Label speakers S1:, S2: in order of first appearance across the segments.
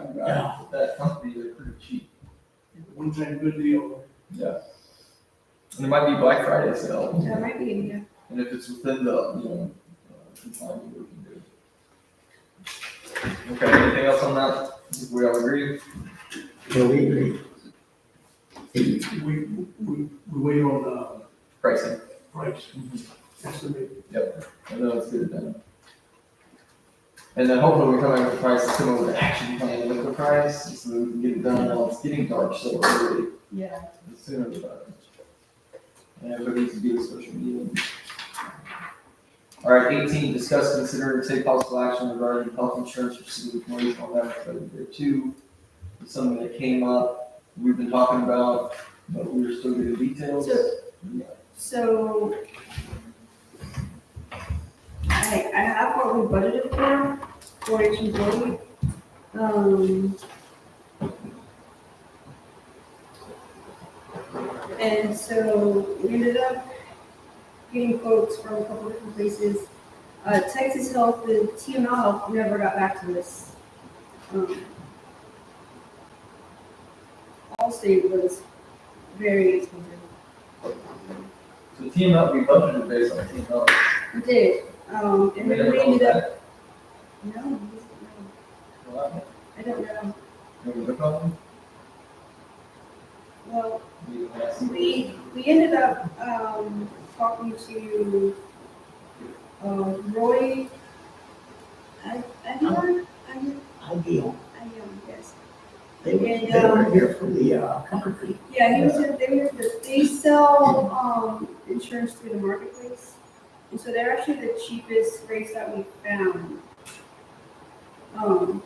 S1: uh, that company, they're pretty cheap.
S2: One time good deal.
S1: Yeah. And it might be Black Friday sale,
S3: That might be, yeah.
S1: and if it's within the, you know, uh, confinement, we can do it. Okay, anything else on that? If we all agree?
S4: So we agree.
S2: We, we, we wait on
S1: Pricing,
S2: the price estimate.
S1: I know it's good then. And then hopefully we come up with a price, come up with an action plan with the price, so that we can get it done while it's getting dark so early.
S3: Yeah.
S1: The sooner the better. And everybody needs to do the social media. All right, eighteen, discuss, consider, and take possible action regarding health insurance for city employees on that, but there too. It's something that came up, we've been talking about, but we were still getting details.
S3: So-
S1: Yeah.
S3: So I, I have what we budgeted for, for each employee. Um. And so we ended up getting quotes from a couple different places. Uh, Texas Health and TML Health never got back to us. Um, Allstate was very expensive.
S1: So team up, we budgeted based on team up.
S3: We did, um, and then we ended up, no, no, I don't know,
S1: Maybe look on them.
S3: well,
S1: We didn't ask them.
S3: we, we ended up, um, talking to, um, Roy, I, I don't, I, I
S4: Ideal.
S3: don't, yes.
S4: They were,
S3: And,
S4: they were
S3: um,
S4: here for the, uh, comfort fee.
S3: Yeah, he was, in- they were, the- they sell, um, insurance through the marketplace, and so they're actually the cheapest rates that we found. Um.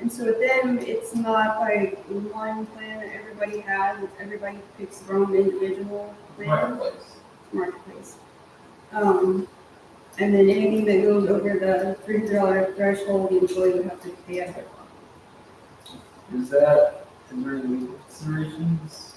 S3: And so with them, it's not like one plan that everybody has, it's everybody picks their own individual plan,
S1: Marketplace.
S3: marketplace. Um, and then anything that goes over the three hundred dollar threshold, the employee would have to pay out of their pocket.
S1: Is that, is there any considerations?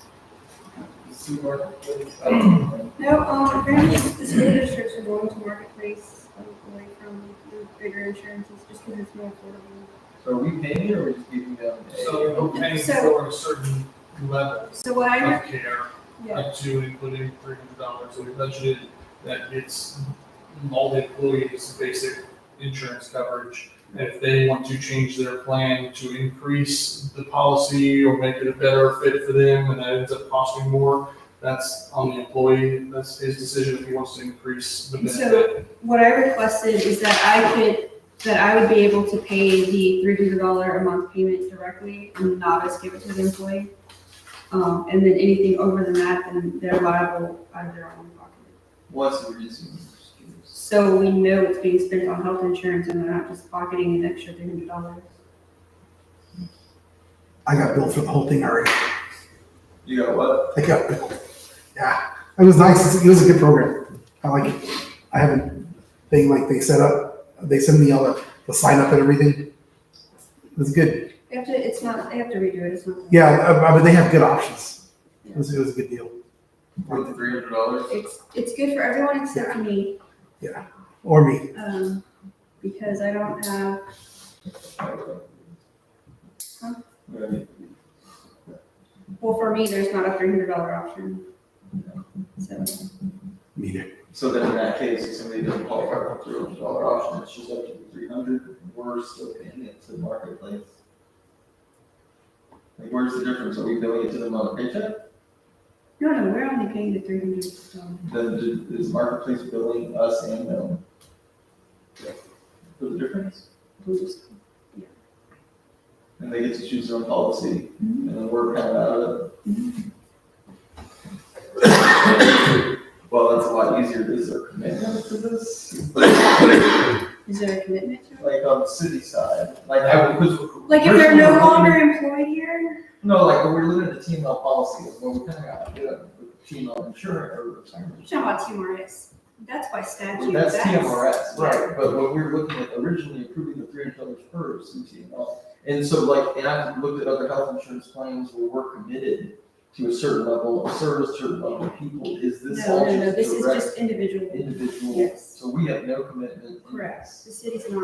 S1: See marketplace? I don't know.
S3: No, um, apparently the school districts are going to marketplace um, away from the bigger insurances just because it's more affordable.
S1: So are we paying it or are we just giving them? a-
S5: So we're paying
S3: So-
S5: for a certain level
S3: So what I, heard-
S5: of care,
S3: yeah,
S5: up to including three hundred dollars, so we budgeted that gets all the employees basic insurance coverage. And If they want to change their plan to increase the policy or make it a better fit for them, and that ends up costing more, that's on the employee, that's his decision if he wants to increase the
S3: So-
S5: benefit.
S3: what I requested is that I could, that I would be able to pay the three hundred dollar a month payment directly and not as give it to the employee. Um, and then anything over than that, then they're liable out of their own pocket.
S1: What's the reason?
S3: So we know it's being spent on health insurance and they're not just pocketing an extra three hundred dollars.
S6: I got billed for the whole thing already.
S1: You got what?
S6: I got billed. Yeah, it was nice. It was a good program. I like it. I have a thing like they set up, they send me all the, the sign up and everything. It was good.
S3: They have to, it's not, they have to redo it, it's not.
S6: Yeah, uh, but they have good options. It was, it was a good deal.
S1: Worth three hundred dollars?
S3: It's, it's good for everyone except for me,
S6: Or me.
S3: um, because I don't have, Huh? well, for me, there's not a three hundred dollar option. So,
S6: Me neither.
S1: So then in that case, if somebody doesn't qualify for three hundred dollar option, it's just up to three hundred, we're still paying it to the marketplace. Like, where's the difference? Are we billing it to them on a paycheck?
S3: no, no, we're only paying the three hundred,
S1: Then do- is marketplace billing us and them? For the difference?
S3: dollars.
S1: And they get to choose their own policy, and then we're kind of out of it. Well, that's a lot easier, is there commitment to this?
S3: Is there a commitment to it?
S1: Like on the city side, like I would.
S3: Like, if they're no longer employed here,
S1: No, like we're limited to team up policy, well, we kind of got to do it with team up insurance or
S3: you're
S1: retirement.
S3: talking about TMRS, that's by statute,
S1: That's
S3: that's,
S1: TMRS, right, but when we were looking at originally approving the three hundred dollars per CTMR. And so like, and I've looked at other health insurance plans where we're committed to a certain level of service, certain level of people, is this
S3: no,
S1: all
S3: no, no,
S1: just
S3: this is
S1: direct
S3: just individual,
S1: individual?
S3: yes,
S1: So we have no commitment. in
S3: correct,
S1: this.
S3: the city's not